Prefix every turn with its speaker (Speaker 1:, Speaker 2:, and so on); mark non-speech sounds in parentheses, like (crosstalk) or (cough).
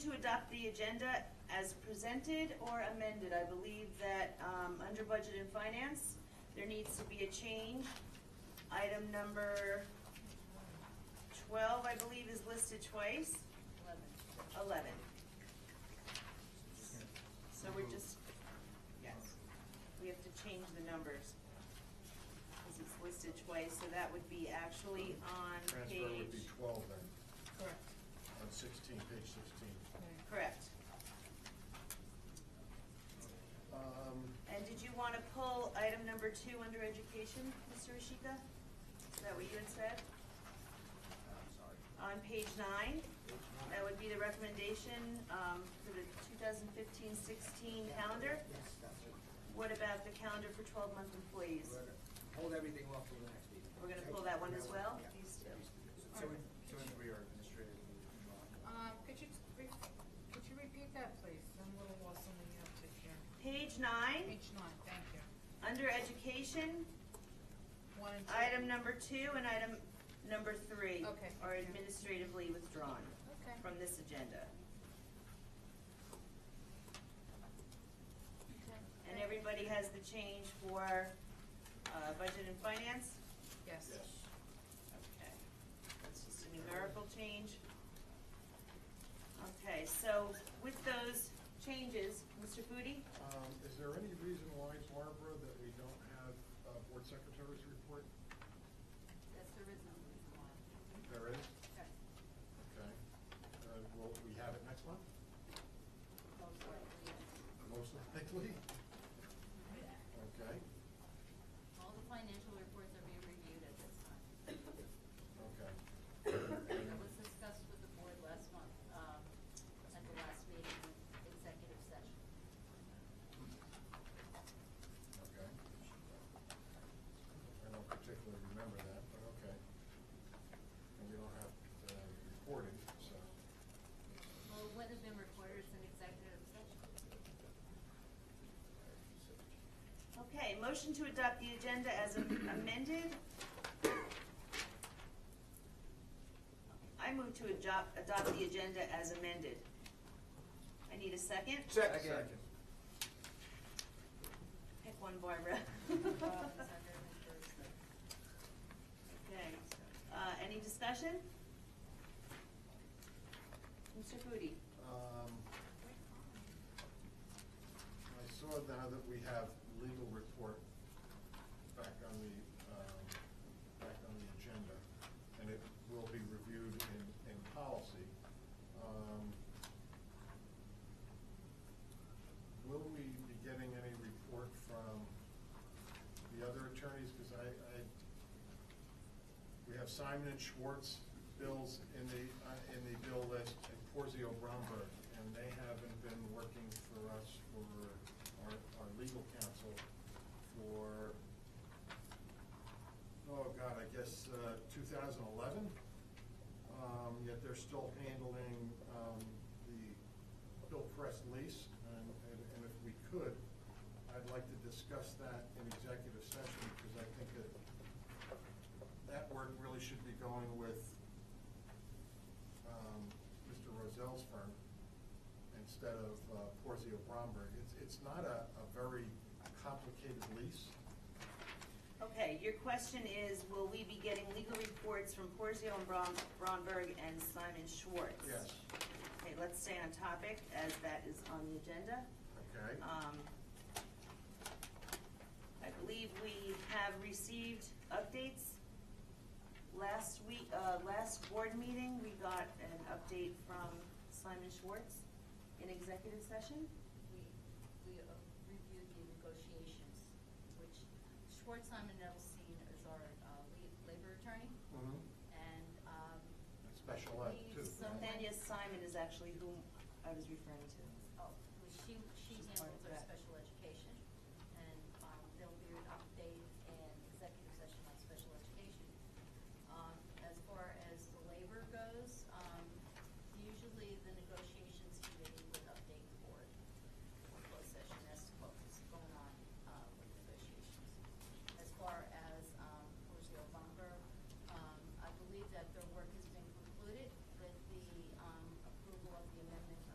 Speaker 1: adopt the agenda as presented or amended. I believe that, um, under budget and finance, there needs to be a change. Item number twelve, I believe, is listed twice. Eleven. Eleven. So we're just, yes, we have to change the numbers. Cause it's listed twice, so that would be actually on page.
Speaker 2: Transfer would be twelve then,
Speaker 1: Correct.
Speaker 2: on sixteen, page sixteen.
Speaker 1: Correct.
Speaker 2: Um,
Speaker 1: And did you wanna pull item number two under education, Mr. Ishika? Is that what you had said? On page nine, that would be the recommendation, um, for the 2015-16 calendar.
Speaker 3: Yes, that's it.
Speaker 1: What about the calendar for twelve-month employees?
Speaker 3: We're gonna Hold everything off till the next meeting.
Speaker 1: We're gonna pull that one as well?
Speaker 3: Yeah.
Speaker 1: These two.
Speaker 3: So when, so when we are administrative. meeting, uh,
Speaker 4: Um, could you, t- re- could you repeat that, please? I'm a little lost on the uptick here.
Speaker 1: Page nine,
Speaker 4: Page nine, thank you.
Speaker 1: under education,
Speaker 4: One and two.
Speaker 1: item number two and item number three
Speaker 4: Okay.
Speaker 1: are administratively withdrawn
Speaker 4: Okay.
Speaker 1: from this agenda. And everybody has the change for, uh, budget and finance?
Speaker 4: Yes.
Speaker 2: yes.
Speaker 1: Okay, that's just a numerical change. Okay, so with those changes, Mr. Foodie?
Speaker 2: Um, is there any reason why, Barbara, that we don't have a board secretary's report?
Speaker 5: Yes, there is no reason why.
Speaker 2: There is?
Speaker 5: Okay.
Speaker 4: (laughs)
Speaker 2: Okay. Uh, will we have it next month?
Speaker 5: Most likely, yes.
Speaker 2: Most likely? Okay,
Speaker 5: All the financial reports are being reviewed at this time.
Speaker 2: okay.
Speaker 5: It was discussed with the board last month, um, at the last meeting, executive session.
Speaker 2: Okay. I don't particularly remember that, but okay. And we don't have, uh, recording, so.
Speaker 5: Well, it would have been recorded as an executive session.
Speaker 1: Okay, motion to adopt the agenda as amended. I move to adopt, adopt the agenda as amended. I need a second.
Speaker 3: Second.
Speaker 1: Pick one, Barbara. Okay, uh, any discussion? Mr. Foodie?
Speaker 2: Um, I saw now that we have legal report back on the, um, back on the agenda, and it will be reviewed in, in policy. Um, Will we be getting any report from the other attorneys? Because I, I, we have Simon and Schwartz bills in the, uh, in the bill list, and Porzio Bromberg, and they haven't been working for us for, our, our legal counsel for, oh God, I guess, uh, two thousand eleven? Um, yet they're still handling, um, the Bill Press lease, and, and and if we could, I'd like to discuss that in executive session, because I think that that work really should be going with, um, Mr. Rozell's firm instead of, uh, Porzio Bromberg. It's, it's not a, a very complicated lease.
Speaker 1: Okay, your question is, will we be getting legal reports from Porzio and Bron- Bronberg and Simon Schwartz?
Speaker 2: Yes.
Speaker 1: Okay, let's stay on topic, as that is on the agenda.
Speaker 2: Okay?
Speaker 1: Um, I believe we have received updates. Last week, uh, last board meeting, we got an update from Simon Schwartz in executive session.
Speaker 5: We, we uh, reviewed the negotiations, which Schwartz Simon Edelstein is our, uh, lead labor attorney,
Speaker 2: Mhm.
Speaker 5: and, um,
Speaker 2: And Special ed too.
Speaker 5: Please,
Speaker 2: right?
Speaker 5: someone-
Speaker 1: Nathaniel Simon is actually whom I was referring to.
Speaker 5: Oh, well, she, she
Speaker 1: She's part of
Speaker 5: handles our
Speaker 1: that.
Speaker 5: special education, and, um, there'll be an update in Um, uh, um, um,